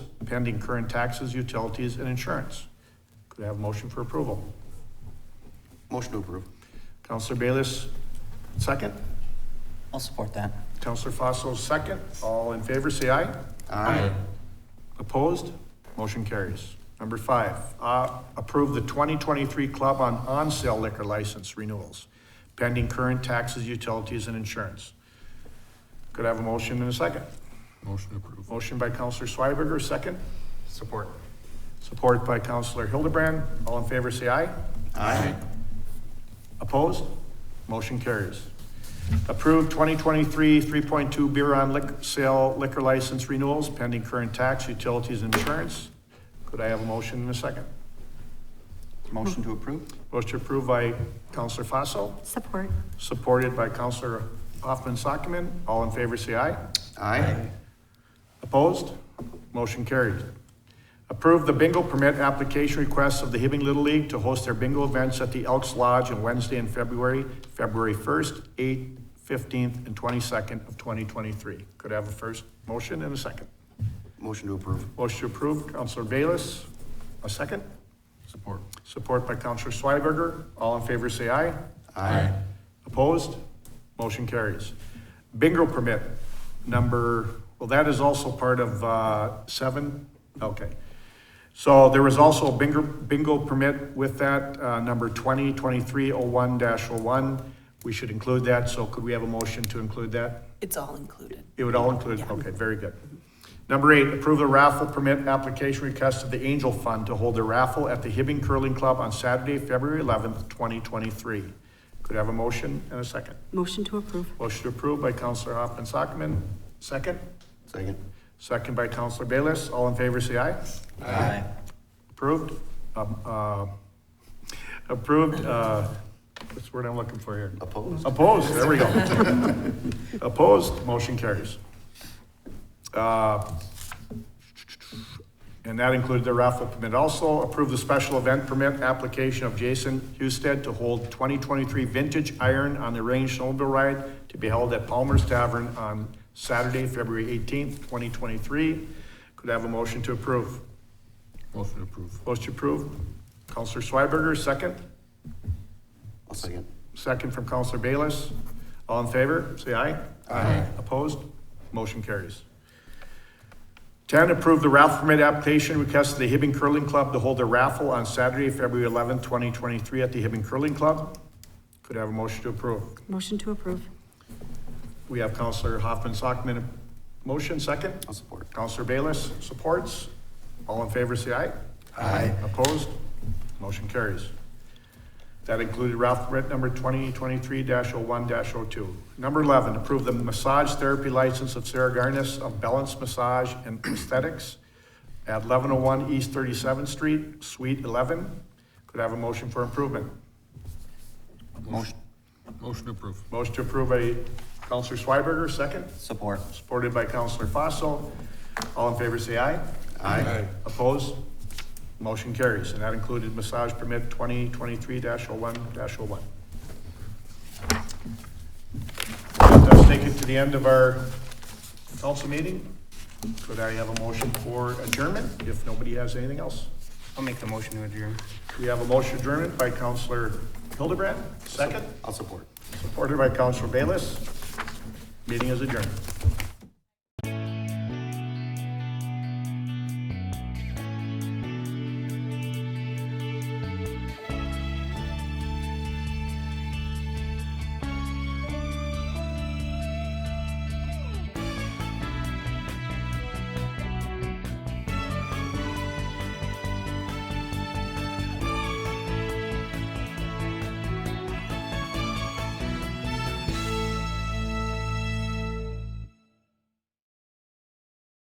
pending current taxes, utilities, and insurance. Could I have a motion for approval? Motion to approve. Counselor Bayless, second. I'll support that. Counselor Fossil, second. All in favor, say aye. Aye. Opposed? Motion carries. Number five, uh, approve the 2023 Club on On-Sale Liquor License Renewals, pending current taxes, utilities, and insurance. Could I have a motion and a second? Motion approved. Motion by Counselor Schweberger, second. Support. Support by Counselor Hildebrand. All in favor, say aye. Aye. Opposed? Motion carries. Approve 2023 3.2 beer on liquor sale liquor license renewals pending current tax, utilities, and insurance. Could I have a motion and a second? Motion to approve. Motion approved by Counselor Fossil, Support. supported by Counselor Hoffman Sockman. All in favor, say aye. Aye. Opposed? Motion carried. Approve the bingo permit application request of the Hibbing Little League to host their bingo events at the Elks Lodge on Wednesday in February, February 1st, 8th, 15th, and 22nd of 2023. Could I have a first motion and a second? Motion to approve. Motion to approve, Counselor Bayless. A second? Support. Support by Counselor Schweberger. All in favor, say aye. Aye. Opposed? Motion carries. Bingo permit number, well, that is also part of uh, seven? Okay. So there was also a bingo, bingo permit with that, uh, number 2023-01-01. We should include that, so could we have a motion to include that? It's all included. It would all include, okay, very good. Number eight, approve the raffle permit application request of the Angel Fund to hold a raffle at the Hibbing Curling Club on Saturday, February eleventh, twenty twenty-three. Could I have a motion and a second? Motion to approve. Motion approved by Counselor Hoffman Sockman, second. Second. Second by Counselor Bayless. All in favor, say aye. Aye. Approved. Um, uh, Approved, uh, what's the word I'm looking for here? Opposed. Opposed, there we go. Opposed, motion carries. Uh, And that included the raffle permit. Also, approve the special event permit application of Jason Husted to hold 2023 Vintage Iron on the Range Snowmobile Ride to be held at Palmer's Tavern on Saturday, February 18th, 2023. Could I have a motion to approve? Motion approved. Motion approved. Counselor Schweberger, second. I'll second. Second from Counselor Bayless. All in favor, say aye. Aye. Opposed? Motion carries. Ten, approve the raffle permit application request of the Hibbing Curling Club to hold a raffle on Saturday, February eleventh, twenty twenty-three at the Hibbing Curling Club. Could I have a motion to approve. Motion to approve. We have Counselor Hoffman Sockman, motion second. I'll support. Counselor Bayless supports. All in favor, say aye. Aye. Opposed? Motion carries. That included Ralph Britt number 2023-01-02. Number 11, approve the massage therapy license of Sarah Garnis of Balance Massage and Aesthetics at 1101 East 37th Street, Suite 11. Could I have a motion for improvement? Motion. Motion approved. Motion to approve by Counselor Schweberger, second. Support. Supported by Counselor Fossil. All in favor, say aye. Aye. Opposed? Motion carries, and that included massage permit twenty twenty-three dash oh one dash oh one. Does take it to the end of our council meeting. Could I have a motion for adjournment, if nobody has anything else? I'll make the motion to adjourn. We have a motion adjournment by Counselor Hildebrand, second, I'll support. supported by Counselor Bayless. Meeting is adjourned.